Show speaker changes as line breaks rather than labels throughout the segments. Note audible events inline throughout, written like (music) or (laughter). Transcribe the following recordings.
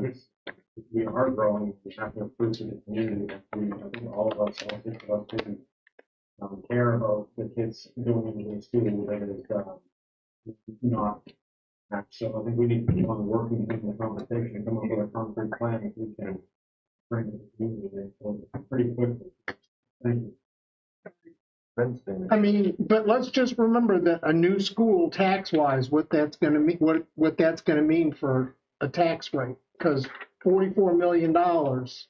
it's, we are growing, we have to improve to the community, we, I think all of us, all six of us, didn't um, care about the kids doing what they do, whether it's, um, not, not, so I think we need to keep on working, in the conversation, come up with a concrete plan if we can bring the community in, so pretty quickly. Thank you.
I mean, but let's just remember that a new school tax-wise, what that's gonna mean, what, what that's gonna mean for a tax rate, because forty-four million dollars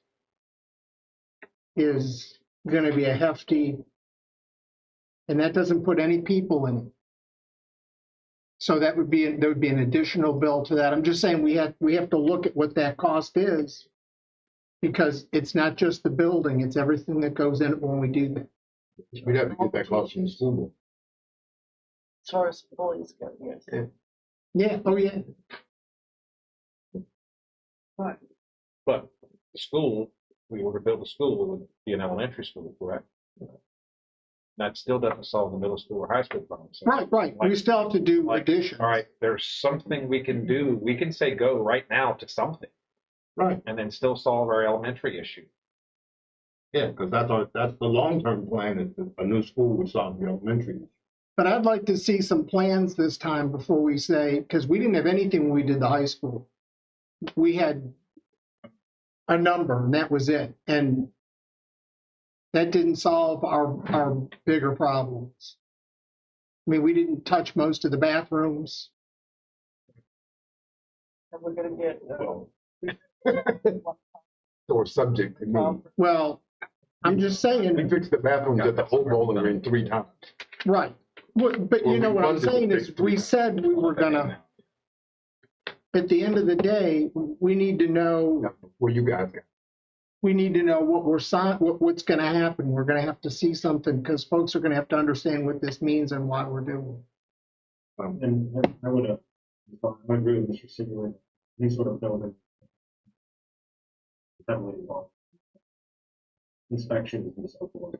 is gonna be a hefty, and that doesn't put any people in. it. So that would be, there would be an additional bill to that. I'm just saying, we have, we have to look at what that cost is, because it's not just the building, it's everything that goes in it when we do that.
We'd have to get that cost from the school. board.
as far as bullies go, yes.
Yeah, oh yeah.
But
But the school, we were to build a school, it would be an elementary school, correct? That still doesn't solve the middle school or high school problem. so-
Right, right. We still have to do
Like-
addition.
All right, there's something we can do. We can say go right now to something.
Right.
And then still solve our elementary issue.
Yeah, because that's our, that's the long-term plan, is that a new school would solve the elementary.
But I'd like to see some plans this time before we say, because we didn't have anything when we did the high school. We had a number and that was it. And that didn't solve our, our bigger problems. I mean, we didn't touch most of the bathrooms.
and we're gonna get, uh,
or subject to me.
um,
Well, I'm just
We
saying,
fixed the bathrooms at the whole bowling green three times.
right. But, but you know what I'm saying is, we said we were gonna, at the end of the day, we need to know
Where you guys got.
we need to know what we're sign, what, what's gonna happen. We're gonna have to see something, because folks are gonna have to understand what this means and why we're doing.
And and I would, uh, I agree with Mr. Sigley, any sort of building. Definitely involved. Inspections and so forth.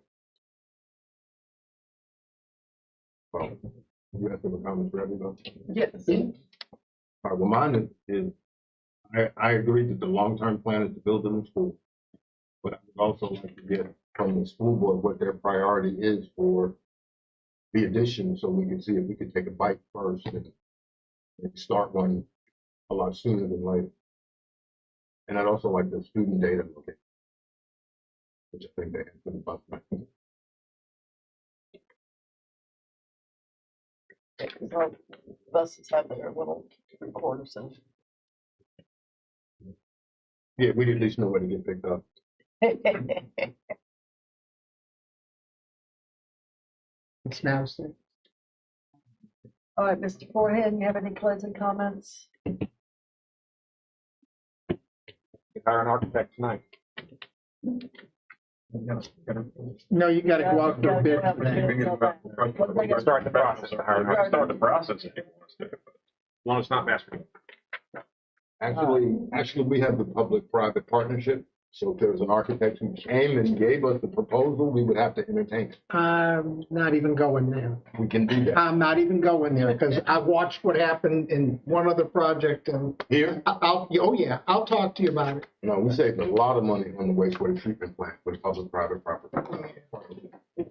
Well, you have some comments for everybody.
yes,
All right, well, mine is, is, I, I agree that the long-term plan is to build a new school. But I would also like to get from the school board what their priority is for the addition, so we can see if we can take a bite first and, and start one a lot sooner than later. And I'd also like the student data look at. Which I think they have been about my,
because our buses have their little recorders (laughs) and,
yeah, we at least know where to get picked up.
It's now safe.
all right, Mr. Forehand, you have any closing comments?
Hire an architect tonight.
No, you gotta go out there bid for that.
that.
Start the process. to hire an architect. Start the process. if you want us to. As long as it's not mass.
Actually, actually, we have the public-private partnership, so if there was an architect who came and gave us the proposal, we would have to entertain it.
I'm not even going there.
We can do that.
I'm not even going there, because I watched what happened in one other project, and
Here,
I- I'll, oh yeah, I'll talk to you about it.
no, we saved a lot of money on the wastewater treatment plant with public-private property.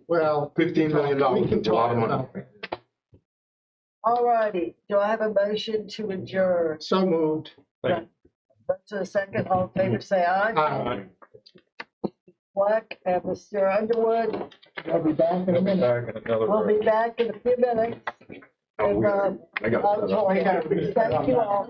Well.
Fifteen million
We
dollars
can
is a lot
talk
of money.
about it.
All righty, do I have a motion to adjourn?
So moved.
To a second, all in favor, say aye.
I'll
Black and Mr. Underwood,
be back in a minute.
we'll be back in a few minutes. uh,
Oh, weird. I got.
Thank you all.